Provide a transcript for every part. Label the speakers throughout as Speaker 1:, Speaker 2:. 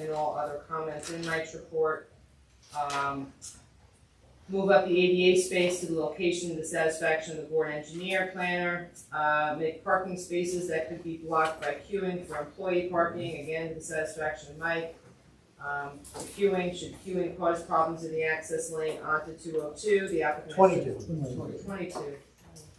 Speaker 1: and all other comments in Mike's report. Um, Move up the ADA space to the location of the satisfaction of the board engineer planner. Uh, Make parking spaces that could be blocked by queuing for employee parking, again, to the satisfaction of Mike. Um, Queuing, should queuing cause problems in the access lane onto two oh two, the applicant.
Speaker 2: Twenty-two.
Speaker 1: Twenty-two.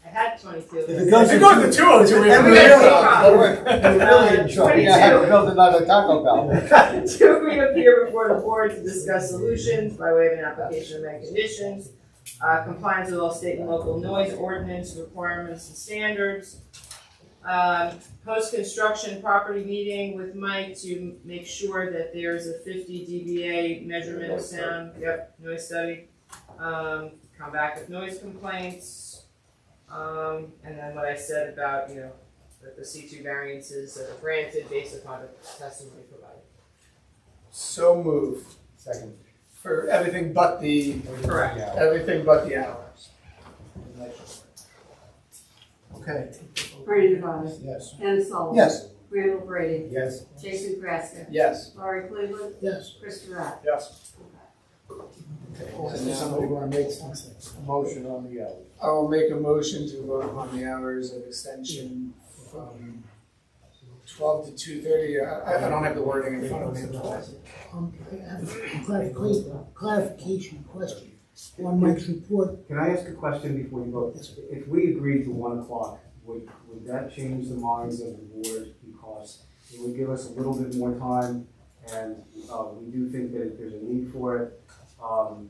Speaker 1: I had twenty-two.
Speaker 2: If it goes
Speaker 3: It goes to two oh two.
Speaker 2: And we
Speaker 1: really-
Speaker 2: really in trouble.
Speaker 1: Yeah, I had to
Speaker 2: build another Taco Bell.
Speaker 1: To reappear before the board to discuss solutions by way of an application of many conditions, uh, compliance with all state and local noise ordinance requirements and standards. Um, post-construction property meeting with Mike to make sure that there's a fifty dBA measurement of sound, yep, noise study. Um, come back with noise complaints. Um, and then what I said about, you know, that the C two variances that are granted based upon the testimony provided.
Speaker 3: So moved
Speaker 2: Second.
Speaker 3: for everything but the,
Speaker 1: Correct.
Speaker 2: Yeah.
Speaker 3: everything but the hours.
Speaker 2: Okay,
Speaker 4: Brady Devine,
Speaker 2: yes.
Speaker 4: Anna Sullivan.
Speaker 2: Yes.
Speaker 4: Randall Brady,
Speaker 2: Yes.
Speaker 4: Jason Graska,
Speaker 3: Yes.
Speaker 4: Laurie Cleveland,
Speaker 2: Yes.
Speaker 4: Chris Rock.
Speaker 3: Yes.
Speaker 2: Okay, so now somebody wanna make a motion on the uh, hours?
Speaker 3: I will make a motion to vote upon the hours of extension from twelve to two thirty. I, I don't have the wording in front of me.
Speaker 5: Um, I have a clarification, clarification question on Mike's report.
Speaker 6: Can I ask a question before you vote? If we agreed to one o'clock, would, would that change the minds of the board? Because it would give us a little bit more time, and, uh, we do think that if there's a need for it, um,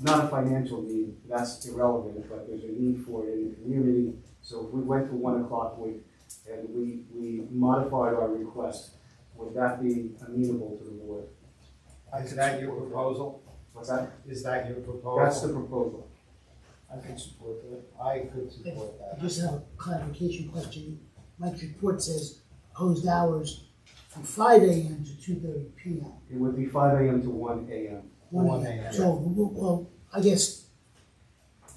Speaker 6: not a financial need, that's irrelevant, but there's a need for it in the community. So if we went to one o'clock, we, and we, we modified our request, would that be amenable to the board?
Speaker 2: Is that your proposal?
Speaker 6: What's that?
Speaker 2: Is that your proposal?
Speaker 6: That's the proposal.
Speaker 2: I could support that. I could support
Speaker 5: I
Speaker 2: that.
Speaker 5: just have a clarification question. Mike's report says proposed hours from five AM to two thirty PM,
Speaker 6: It would be five AM to one AM.
Speaker 5: one
Speaker 2: 1
Speaker 5: AM.
Speaker 2: a.m.
Speaker 5: So, well, well, I guess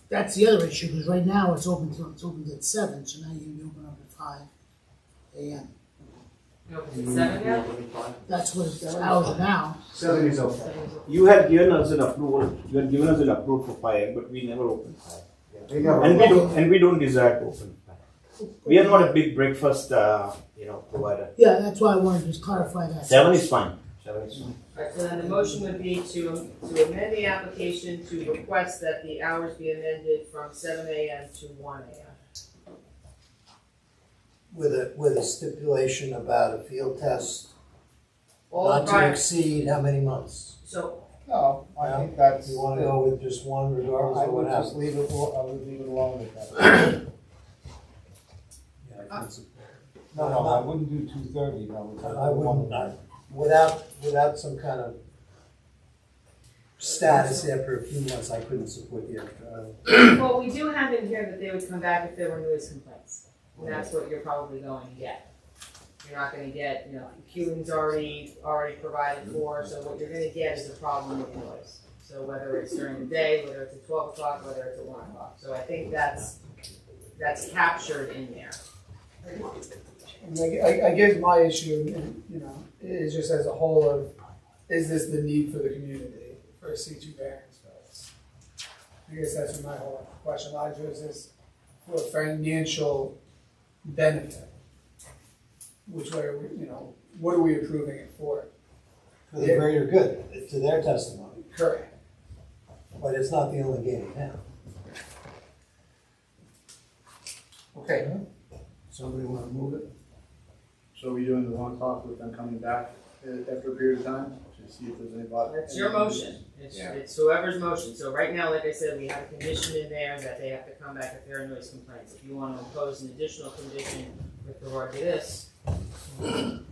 Speaker 5: that's the other issue, because right now it's open till, it's open at seven, so now you're gonna be open up at five AM.
Speaker 1: No, is it seven yet?
Speaker 5: That's what it's hours now.
Speaker 6: Seven is okay.
Speaker 7: You had given us an approval, you had given us an approval for fire, but we never opened fire.
Speaker 6: Yeah, they got
Speaker 7: And we
Speaker 6: it.
Speaker 7: don't, and we don't desire to open fire. We are not a big breakfast, uh, you know, provider.
Speaker 5: Yeah, that's why I wanted to just clarify that.
Speaker 7: Seven is fine, seven is fine.
Speaker 1: Alright, so then the motion would be to, to amend the application to request that the hours be amended from seven AM to one AM.
Speaker 8: With a, with a stipulation about a field test,
Speaker 1: All
Speaker 8: not to
Speaker 1: prior,
Speaker 8: exceed how many months?
Speaker 1: so,
Speaker 3: Oh,
Speaker 2: No, I think that's.
Speaker 8: You wanna go with just one regardless
Speaker 2: I
Speaker 8: of what
Speaker 2: would just
Speaker 8: happens?
Speaker 2: leave it, al- I would leave it alone with that.
Speaker 8: Yeah, I can support
Speaker 2: No, no, I wouldn't do two thirty, no.
Speaker 8: it. I wouldn't, I- without, without some kind of status after a few months, I couldn't support the extra. uh,
Speaker 1: well, we do have in here that they would come back if there were noise complaints. And that's what you're probably going to get. You're not gonna get, you know, queuing's already, already provided for, so what you're gonna get is a problem with noise. So whether it's during the day, whether it's at twelve o'clock, whether it's at one o'clock, so I think that's, that's captured in there.
Speaker 3: And I, I- I guess my issue, you know, is just as a whole of, is this the need for the community for a C two variance for us? I guess that's my whole question, a lot of it is this for financial benefit. Which way, are we, you know, what are we approving it for?
Speaker 8: For the greater good, to their testimony,
Speaker 3: Correct.
Speaker 8: but it's not the only game in town.
Speaker 3: Okay.
Speaker 2: Somebody wanna move it?
Speaker 9: So are we doing the one o'clock with them coming back uh, after a period of time to see if there's any block?
Speaker 1: That's your motion, it's, it's whoever's motion, so right now, like I said, we have a condition in there that they have to come back if there are noise complaints. If you wanna impose an additional condition with regard to this, you can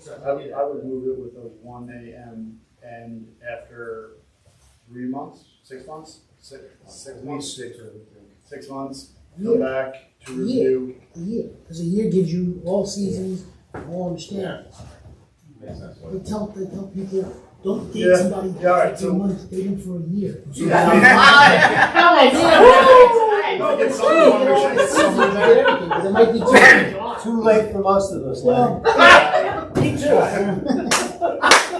Speaker 9: I
Speaker 1: certainly do
Speaker 9: would, I
Speaker 1: that.
Speaker 9: would move it with a one AM and after three months, six months, six, six
Speaker 2: At
Speaker 9: months,
Speaker 2: least six, I would think.
Speaker 9: six months,
Speaker 5: Year,
Speaker 9: come back to review.
Speaker 5: a year, because a year gives you all seasons, all understanding. They tell, they tell people, don't date
Speaker 9: Yeah.
Speaker 5: somebody
Speaker 9: Yeah, all right,
Speaker 5: for two
Speaker 9: so-
Speaker 5: months, date them for a year.
Speaker 9: No, get someone, I wanna make sure get someone there.
Speaker 5: Because it might be too-
Speaker 8: Too late for most of us,
Speaker 5: Well,
Speaker 8: Larry.
Speaker 5: me too.